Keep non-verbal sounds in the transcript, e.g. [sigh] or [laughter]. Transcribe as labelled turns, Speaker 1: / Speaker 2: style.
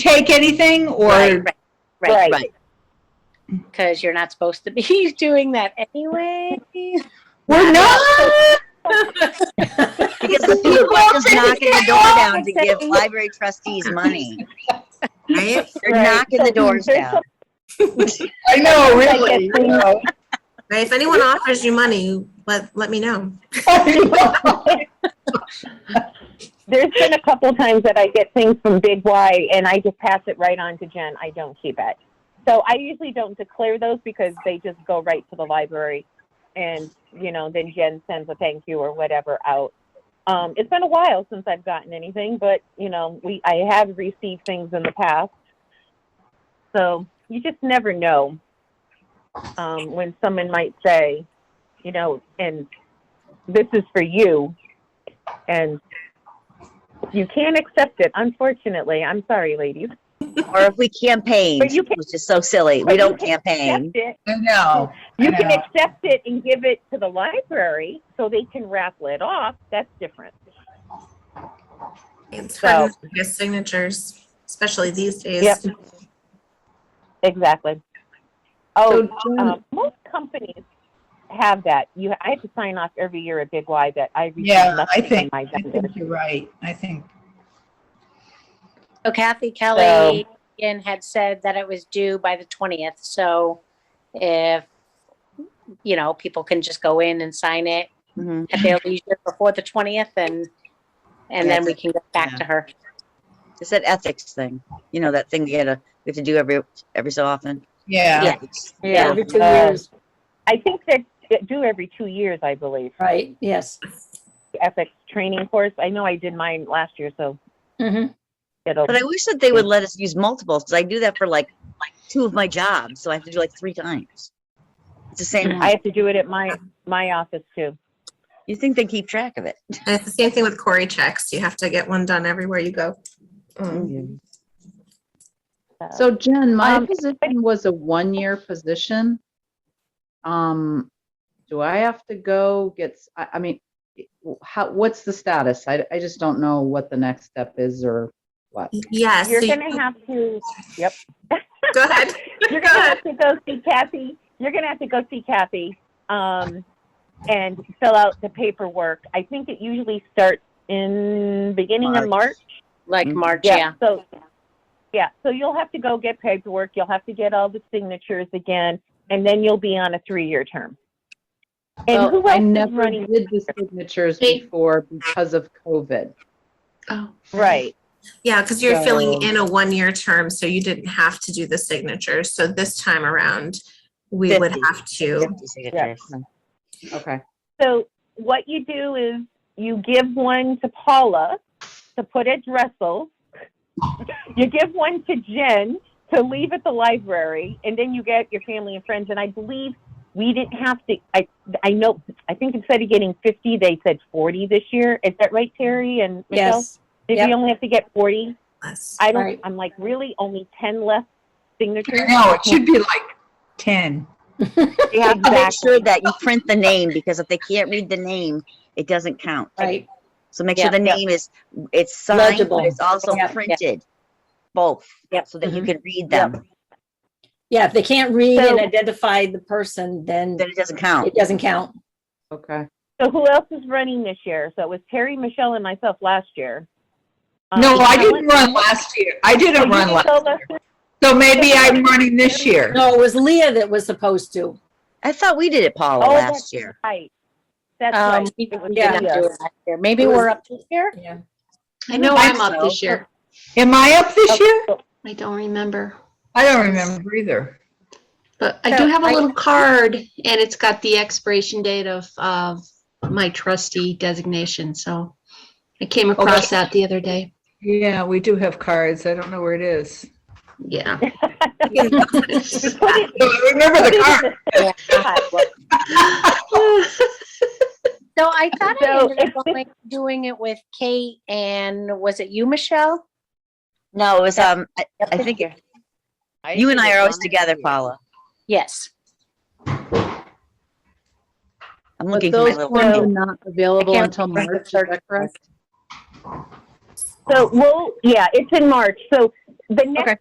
Speaker 1: take anything or,
Speaker 2: Right, right,
Speaker 3: Right.
Speaker 2: right. Because you're not supposed to be [laughs] doing that anyway. [laughs]
Speaker 1: we're [laughs] not.
Speaker 3: Because the
Speaker 1: People
Speaker 3: people are just
Speaker 1: always
Speaker 3: knocking the
Speaker 1: say
Speaker 3: door
Speaker 1: all
Speaker 3: down to
Speaker 1: the
Speaker 3: give
Speaker 1: same.
Speaker 3: library trustees money.
Speaker 1: [laughs]
Speaker 3: Right? They're
Speaker 4: Right.
Speaker 3: knocking the
Speaker 4: So
Speaker 3: doors
Speaker 4: there's
Speaker 3: down.
Speaker 1: I know, really. you know.
Speaker 5: Right, if anyone offers you money, let, let me know.
Speaker 4: There's been a couple times that I get things from Big Y and I just pass it right on to Jen. I don't keep it. So I usually don't declare those because they just go right to the library and, you know, then Jen sends a thank you or whatever out. Um, it's been a while since I've gotten anything, but, you know, we I have received things in the past. So you just never know um, when someone might say, you know, and this is for you. And you can't accept it, unfortunately. I'm sorry, ladies.
Speaker 3: Or if we campaigned,
Speaker 4: But you can-
Speaker 3: which is so silly. We
Speaker 4: but you
Speaker 3: don't
Speaker 4: can
Speaker 3: campaign.
Speaker 4: Accept it.
Speaker 1: I know.
Speaker 4: You
Speaker 1: I
Speaker 4: can
Speaker 1: know.
Speaker 4: accept it and give it to the library so they can raffle it off. That's different.
Speaker 5: It's
Speaker 4: So-
Speaker 5: hard to get signatures, especially these days.
Speaker 4: Yep. Exactly. Oh,
Speaker 1: So, mm,
Speaker 4: um, most companies have that. You, I have to sign off every year at Big Y that I receive
Speaker 1: Yeah, I
Speaker 4: nothing from
Speaker 1: think,
Speaker 4: my
Speaker 1: I
Speaker 4: vendors.
Speaker 1: think you're right. I think,
Speaker 2: So Kathy Kelly Ian had said that it was due by the 20th, so if, you know, people can just go in and sign it
Speaker 3: Mhm.
Speaker 2: at their leisure before the 20th and, and then we can get back to her.
Speaker 3: It's that ethics thing. You know, that thing you gotta, we have to do every, every so often.
Speaker 1: yeah.
Speaker 3: Ethics.
Speaker 6: Yeah, every two
Speaker 4: Uh,
Speaker 6: years,
Speaker 4: I think they do every two years, I believe.
Speaker 6: right, yes.
Speaker 4: Ethics training course. I know I did mine last year, so
Speaker 1: Mm-hmm.
Speaker 6: Mhm.
Speaker 4: it'll.
Speaker 3: But I wish that they would let us use multiples, because I do that for like, like two of my jobs, so I have to do like three times. It's the same,
Speaker 4: I have to do it at my my office too.
Speaker 3: you think they keep track of it.
Speaker 5: And it's the same thing with Cory checks. You have to get one done everywhere you go. Um,
Speaker 7: So Jen, my
Speaker 4: Um,
Speaker 7: position was a one-year position. Um, do I have to go get, s- I, I mean, how, what's the status? I, I just don't know what the next step is or what.
Speaker 5: Yes.
Speaker 4: You're
Speaker 5: so you-
Speaker 4: gonna have to. Yep.
Speaker 5: [laughs] Go ahead.
Speaker 4: [laughs] You're
Speaker 5: Go
Speaker 4: gonna
Speaker 5: ahead.
Speaker 4: have to go see Kathy. You're gonna have to go see Kathy, um, and fill out the paperwork. I think it usually starts in beginning of March.
Speaker 3: March.
Speaker 2: Like
Speaker 3: Mhm.
Speaker 2: March, yeah.
Speaker 4: So, yeah. So you'll have to go get paperwork. You'll have to get all the signatures again, and then you'll be on a three-year term. And
Speaker 7: Well,
Speaker 4: who
Speaker 7: I
Speaker 4: else is
Speaker 7: never
Speaker 4: running?
Speaker 7: did the signatures before because of COVID.
Speaker 4: Right.
Speaker 5: [laughs] Yeah, because you're filling
Speaker 7: So-
Speaker 5: in a one-year term, so you didn't have to do the signatures. So this time around, we would
Speaker 3: Fifty.
Speaker 5: have to,
Speaker 3: Empty signatures.
Speaker 7: Okay.
Speaker 4: So what you do is you give one to Paula to put at Dressel. [laughs] you give one to Jen to leave at the library, and then you get your family and friends. And I believe we didn't have to. I I know. I think instead of getting fifty, they said forty this year. Is that right, Terry and Michelle?
Speaker 6: Yes,
Speaker 4: Did we
Speaker 6: yep.
Speaker 4: only have to get forty?
Speaker 5: Yes.
Speaker 4: I don't.
Speaker 6: Right.
Speaker 4: I'm like really only ten left signatures.
Speaker 1: No, it should be like 10.
Speaker 3: They
Speaker 1: [laughs]
Speaker 3: have to make
Speaker 4: Exactly.
Speaker 3: sure that you print the name, because if they can't read the name, it doesn't count.
Speaker 6: right,
Speaker 3: So make sure
Speaker 2: Yeah.
Speaker 3: the name is, it's signed,
Speaker 6: Legible.
Speaker 3: but it's also
Speaker 6: Yeah, yeah.
Speaker 3: printed, both,
Speaker 2: Yep.
Speaker 3: so that you
Speaker 6: Mhm.
Speaker 3: can read them,
Speaker 6: yeah, if they can't read and
Speaker 4: So-
Speaker 6: identify the person, then
Speaker 3: then it doesn't count.
Speaker 6: it doesn't count.
Speaker 7: Okay.
Speaker 4: So who else is running this year? So it was Terry, Michelle, and myself last year. Um,
Speaker 1: No, I
Speaker 4: Helen-
Speaker 1: didn't run last year. I
Speaker 4: Oh,
Speaker 1: didn't
Speaker 4: you
Speaker 1: run
Speaker 4: didn't
Speaker 1: last.
Speaker 4: go last year?
Speaker 1: So maybe I'm running this year.
Speaker 6: No, it was Leah that was supposed to.
Speaker 3: I thought we did it, Paula,
Speaker 4: Oh,
Speaker 3: last year.
Speaker 4: Right. That's
Speaker 2: Um,
Speaker 4: right.
Speaker 2: we
Speaker 4: It was
Speaker 2: we did not
Speaker 4: Leah.
Speaker 2: do it last year. Maybe we're up to here?
Speaker 6: Yeah.
Speaker 8: I know
Speaker 1: I
Speaker 8: I'm up this year.
Speaker 1: Am I up this year?
Speaker 8: I don't remember.
Speaker 1: I don't remember either.
Speaker 8: But I
Speaker 2: So
Speaker 8: do have a
Speaker 2: I-
Speaker 8: little card and it's got the expiration date of, of my trustee designation. So I came across that the other day.
Speaker 1: Yeah, we do have cards. I don't know where it is.
Speaker 8: [laughs] Yeah.
Speaker 4: We put it-
Speaker 1: No, I remember
Speaker 4: put it
Speaker 1: the
Speaker 4: in
Speaker 1: card.
Speaker 2: Yeah.
Speaker 4: pot.
Speaker 2: So I thought I
Speaker 4: So
Speaker 2: ended
Speaker 4: it's
Speaker 2: up going- doing it with Kate and was it you, Michelle?
Speaker 3: No, it was, um, I- I
Speaker 2: this
Speaker 3: think,
Speaker 2: year.
Speaker 3: it- you and I are always together, Paula.
Speaker 2: Yes.
Speaker 3: I'm
Speaker 7: But
Speaker 3: looking for my
Speaker 7: those
Speaker 3: little.
Speaker 7: forms are not available
Speaker 2: can't
Speaker 7: until
Speaker 2: remember the
Speaker 7: March, is that correct?
Speaker 4: So, well, yeah, it's in March. So the next